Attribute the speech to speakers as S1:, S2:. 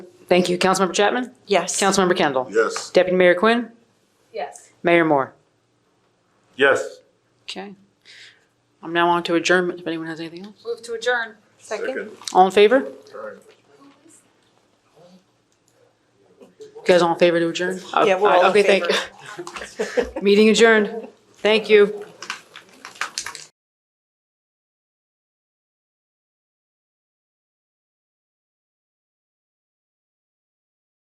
S1: Thank you. Councilmember Chapman?
S2: Yes.
S1: Councilmember Kendall?
S3: Yes.
S1: Deputy Mayor Quinn?
S4: Yes.
S1: Mayor Moore?
S3: Yes.
S1: Okay. I'm now on to adjournment, if anyone has anything else.
S4: Move to adjourn.
S2: Second?
S1: All in favor? You guys all in favor to adjourn?
S2: Yeah, we're all in
S1: Okay, thank
S2: favor.
S1: you. Meeting adjourned. Thank you.